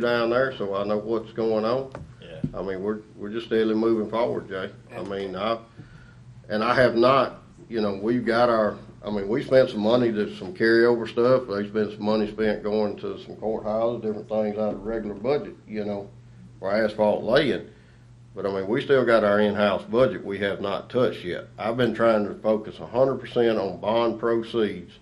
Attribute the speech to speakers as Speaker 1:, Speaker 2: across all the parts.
Speaker 1: down there, so I know what's going on.
Speaker 2: Yeah.
Speaker 1: I mean, we're, we're just steadily moving forward, Jay. I mean, I, and I have not, you know, we've got our, I mean, we spent some money to some carryover stuff. There's been some money spent going to some courthouses, different things out of the regular budget, you know, for asphalt laying. But I mean, we still got our in-house budget we have not touched yet. I've been trying to focus hundred percent on bond proceeds.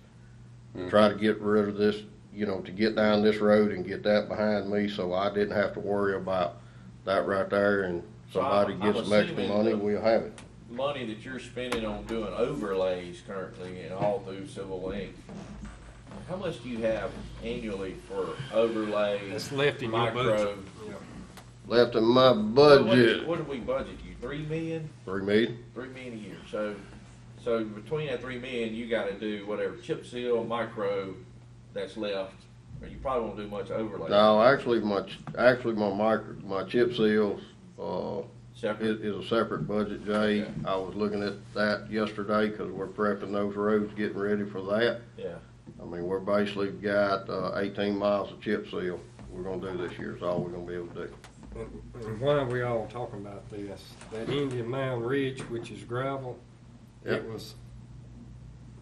Speaker 2: Hmm.
Speaker 1: to Try to get rid of this, you know, to get down this road and get that behind me, so I didn't have to worry about that right there and
Speaker 2: So I'm-
Speaker 1: somebody gets
Speaker 2: I'm
Speaker 1: some extra
Speaker 2: assuming
Speaker 1: money,
Speaker 2: the-
Speaker 1: we'll have it.
Speaker 2: Money that you're spending on doing overlays currently and all through Civil Link, how much do you have annually for overlays,
Speaker 3: That's left in your
Speaker 2: micro?
Speaker 3: budget.
Speaker 1: Left in my
Speaker 2: What- what did-
Speaker 1: budget,
Speaker 2: What did we budget you, three million?
Speaker 1: three million,
Speaker 2: Three million a year, so, so between that three million, you gotta do whatever chip seal, micro that's left, or you probably won't do much overlay.
Speaker 1: no, actually, my, ch- actually, my micro, my chip seals, uh,
Speaker 2: Separate,
Speaker 1: It is a separate budget, Jay.
Speaker 2: Okay.
Speaker 1: I was looking at that yesterday, cause we're prepping those roads, getting ready for that.
Speaker 2: yeah,
Speaker 1: I mean, we're basically got, uh, eighteen miles of chip seal we're gonna do this year, is all we're gonna be able to do.
Speaker 3: And and why are we all talking about this? That Indian Mound Ridge, which is gravel,
Speaker 1: Yep.
Speaker 3: it was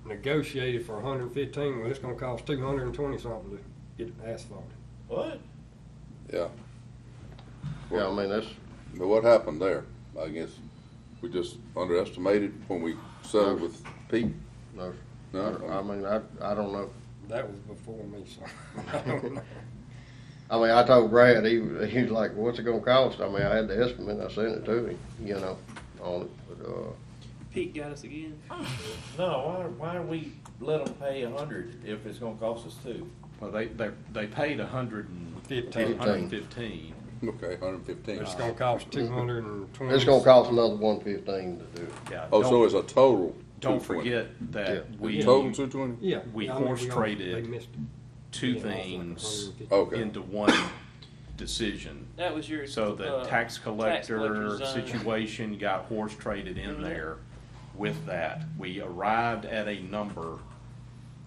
Speaker 3: negotiated for hundred and fifteen, well, it's gonna cost two hundred and twenty something to get it asphalted.
Speaker 2: what?
Speaker 4: Yeah.
Speaker 1: Yeah, I mean, that's,
Speaker 4: But what happened there? I guess we just underestimated when we settled with Pete.
Speaker 1: no, I
Speaker 4: No,
Speaker 1: mean, I, I don't know.
Speaker 3: That was before me, so I don't know.
Speaker 1: I mean, I told Brad, he, he was like, what's it gonna cost? I mean, I had the estimate, I sent it to him, you know, on it, but, uh,
Speaker 5: Pete got us again.
Speaker 2: No, why, why do we let them pay a hundred if it's gonna cost us two?
Speaker 6: Well, they, they, they paid a hundred and
Speaker 3: Fifteen.
Speaker 6: fifteen, hundred and fifteen.
Speaker 4: okay, hundred fifteen.
Speaker 3: It's gonna cost two hundred and twenty.
Speaker 1: it's gonna cost another one fifteen to do it.
Speaker 6: Yeah,
Speaker 4: Oh, so
Speaker 6: don't-
Speaker 4: it's a total
Speaker 6: Don't
Speaker 4: 220.
Speaker 6: forget that
Speaker 1: Yeah.
Speaker 6: we,
Speaker 4: Total two twenty?
Speaker 3: Yeah.
Speaker 6: we
Speaker 3: I mean,
Speaker 6: horse
Speaker 3: all-
Speaker 6: traded
Speaker 3: they missed it.
Speaker 6: two
Speaker 3: Yeah, it was like
Speaker 6: things
Speaker 3: 150.
Speaker 4: Okay,
Speaker 6: into one decision.
Speaker 5: That was your.
Speaker 6: So the
Speaker 5: uh,
Speaker 6: tax collector
Speaker 5: collector's uh, Mm-hmm. zone.
Speaker 6: situation got horse traded in there with that. We arrived at a number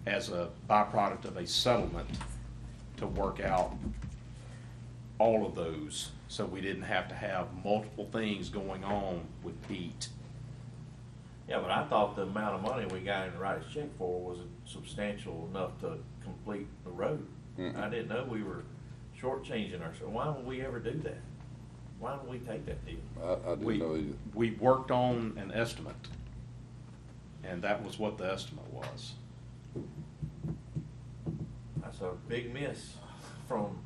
Speaker 6: as a byproduct of a settlement to work out all of those, so we didn't have to have multiple things going on with Pete.
Speaker 2: Yeah, but I thought the amount of money we got in to write a check for was substantial enough to complete the road. I didn't know we were shortchanging ourselves. Why would we ever do that? Why don't we take that deal?
Speaker 4: I, I didn't
Speaker 6: We,
Speaker 4: know either.
Speaker 6: we worked on an estimate, and that was what the estimate was.
Speaker 2: That's a big miss from,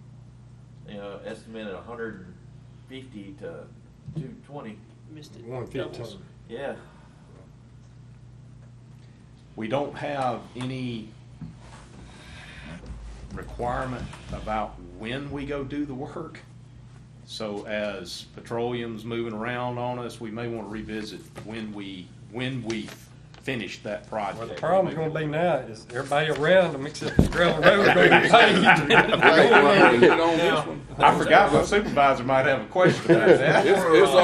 Speaker 2: you know, estimated hundred and fifty to two twenty.
Speaker 5: Missed it.
Speaker 3: One
Speaker 5: Doubles.
Speaker 3: fifteen.
Speaker 2: Yeah.
Speaker 6: We don't have any requirement about when we go do the work. So as petroleum's moving around on us, we may want to revisit when we, when we finish that project.
Speaker 3: Well, the problem's gonna be now is everybody around them except the gravel road gonna be paved.
Speaker 4: Hey, well, get on this one.
Speaker 6: I forgot my supervisor might have a question about that.
Speaker 4: It's, it's